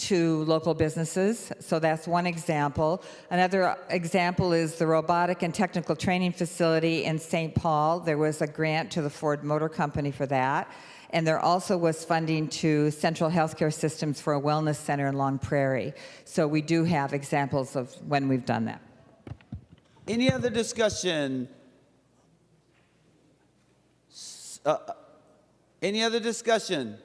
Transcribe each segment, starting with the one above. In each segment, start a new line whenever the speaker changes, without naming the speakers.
to local businesses. So that's one example. Another example is the Robotic and Technical Training Facility in St. Paul. There was a grant to the Ford Motor Company for that. And there also was funding to Central Healthcare Systems for a wellness center in Long Prairie. So we do have examples of when we've done that.
Any other discussion? S- uh, uh, Any other discussion?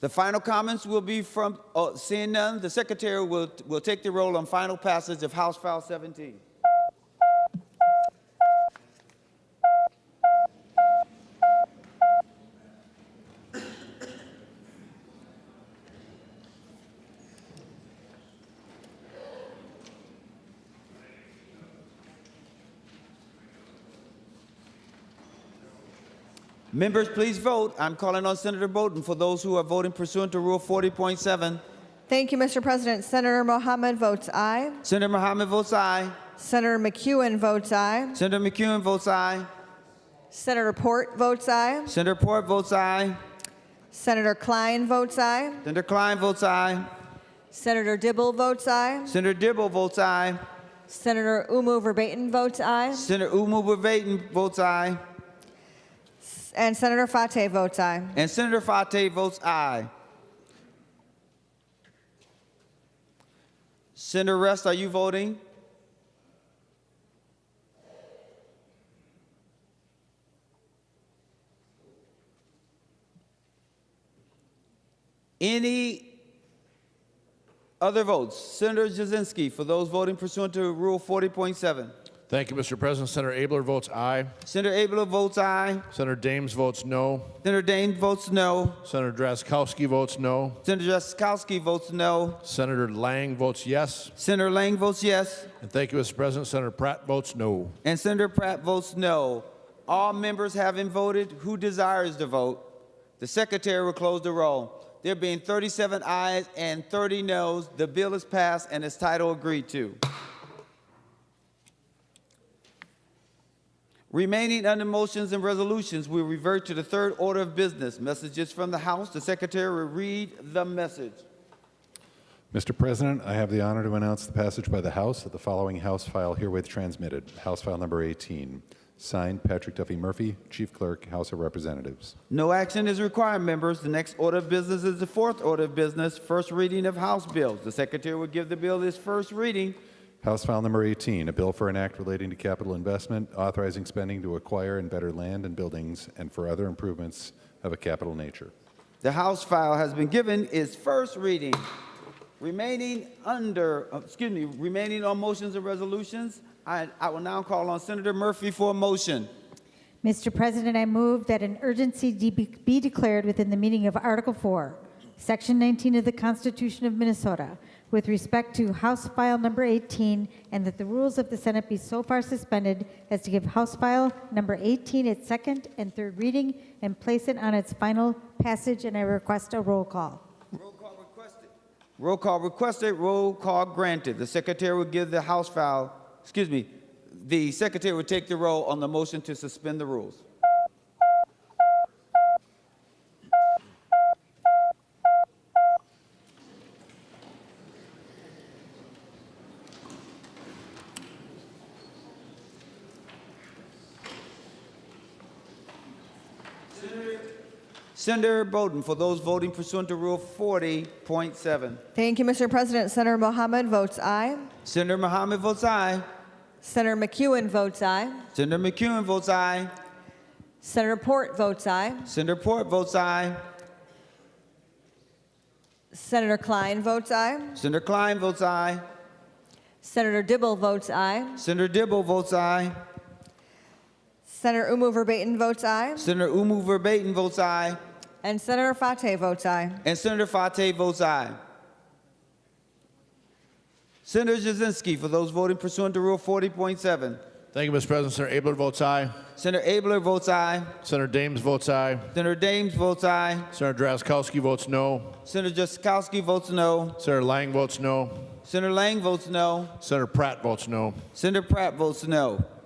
The final comments will be from, oh, seeing none, the secretary will, will take the roll on final passage of House File 17. Members, please vote. I'm calling on Senator Bowden for those who are voting pursuant to Rule 40.7.
Thank you, Mr. President. Senator Mohammed votes aye.
Senator Mohammed votes aye.
Senator McEwen votes aye.
Senator McEwen votes aye.
Senator Port votes aye.
Senator Port votes aye.
Senator Klein votes aye.
Senator Klein votes aye.
Senator Dibble votes aye.
Senator Dibble votes aye.
Senator Umu Verbatim votes aye.
Senator Umu Vervaeten votes aye.
And Senator Fateh votes aye.
And Senator Fate votes aye. Senator Rest, are you voting? Any other votes? Senator Jazinski, for those voting pursuant to Rule 40.7.
Thank you, Mr. President. Senator Abler votes aye.
Senator Abler votes aye.
Senator Dames votes no.
Senator Dane votes no.
Senator Drazkowski votes no.
Senator Jaskowski votes no.
Senator Lang votes yes.
Senator Lang votes yes,
And thank you, Mr. President. Senator Pratt votes no.
and Senator Pratt votes no. All members having voted, who desires to vote? The secretary will close the roll. There being 37 ayes and 30 noes, the bill is passed and its title agreed to. Remaining under motions and resolutions, we revert to the third order of business. Messages from the House, the secretary will read the message.
Mr. President, I have the honor to announce the passage by the House of the following House file herewith transmitted, House File Number 18, signed Patrick Duffy Murphy, Chief Clerk, House of Representatives.
No action is required, members. The next order of business is the fourth order of business, first reading of House bills. The Secretary will give the bill its first reading.
House File Number 18, a bill for an act relating to capital investment, authorizing spending to acquire and better land and buildings and for other improvements of a capital nature.
The House file has been given its first reading. Remaining under, uh, excuse me, remaining on motions and resolutions, I, I will now call on Senator Murphy for a motion.
Mr. President, I move that an urgency de- be declared within the meaning of Article 4, Section 19 of the Constitution of Minnesota with respect to House File Number 18, and that the rules of the Senate be so far suspended as to give House File Number 18 its second and third reading and place it on its final passage, and I request a roll call.
Roll call requested. Roll call requested, roll call granted. The Secretary will give the House file, excuse me, the Secretary will take the roll on the motion to suspend the rules. Senator Bowden, for those voting pursuant to Rule 40.7.
Thank you, Mr. President. Senator Mohammed votes aye.
Senator Mohammed votes aye.
Senator McEwen votes aye.
Senator McEwen votes aye.
Senator Port votes aye.
Senator Port votes aye.
Senator Klein votes aye.
Senator Klein votes aye.
Senator Dibble votes aye.
Senator Dibble votes aye.
Senator Umu Verbatim votes aye.
Senator Umu Verbatim votes aye.
And Senator Fateh votes aye.
And Senator Fate votes aye. Senator Jazinski, for those voting pursuant to Rule 40.7.
Thank you, Mr. President. Senator Abler votes aye.
Senator Abler votes aye.
Senator Dames votes aye.
Senator Dames votes aye.
Senator Drazkowski votes no.
Senator Jaskowski votes no.
Senator Lang votes no.
Senator Lang votes no.
Senator Pratt votes no.
Senator Pratt votes no.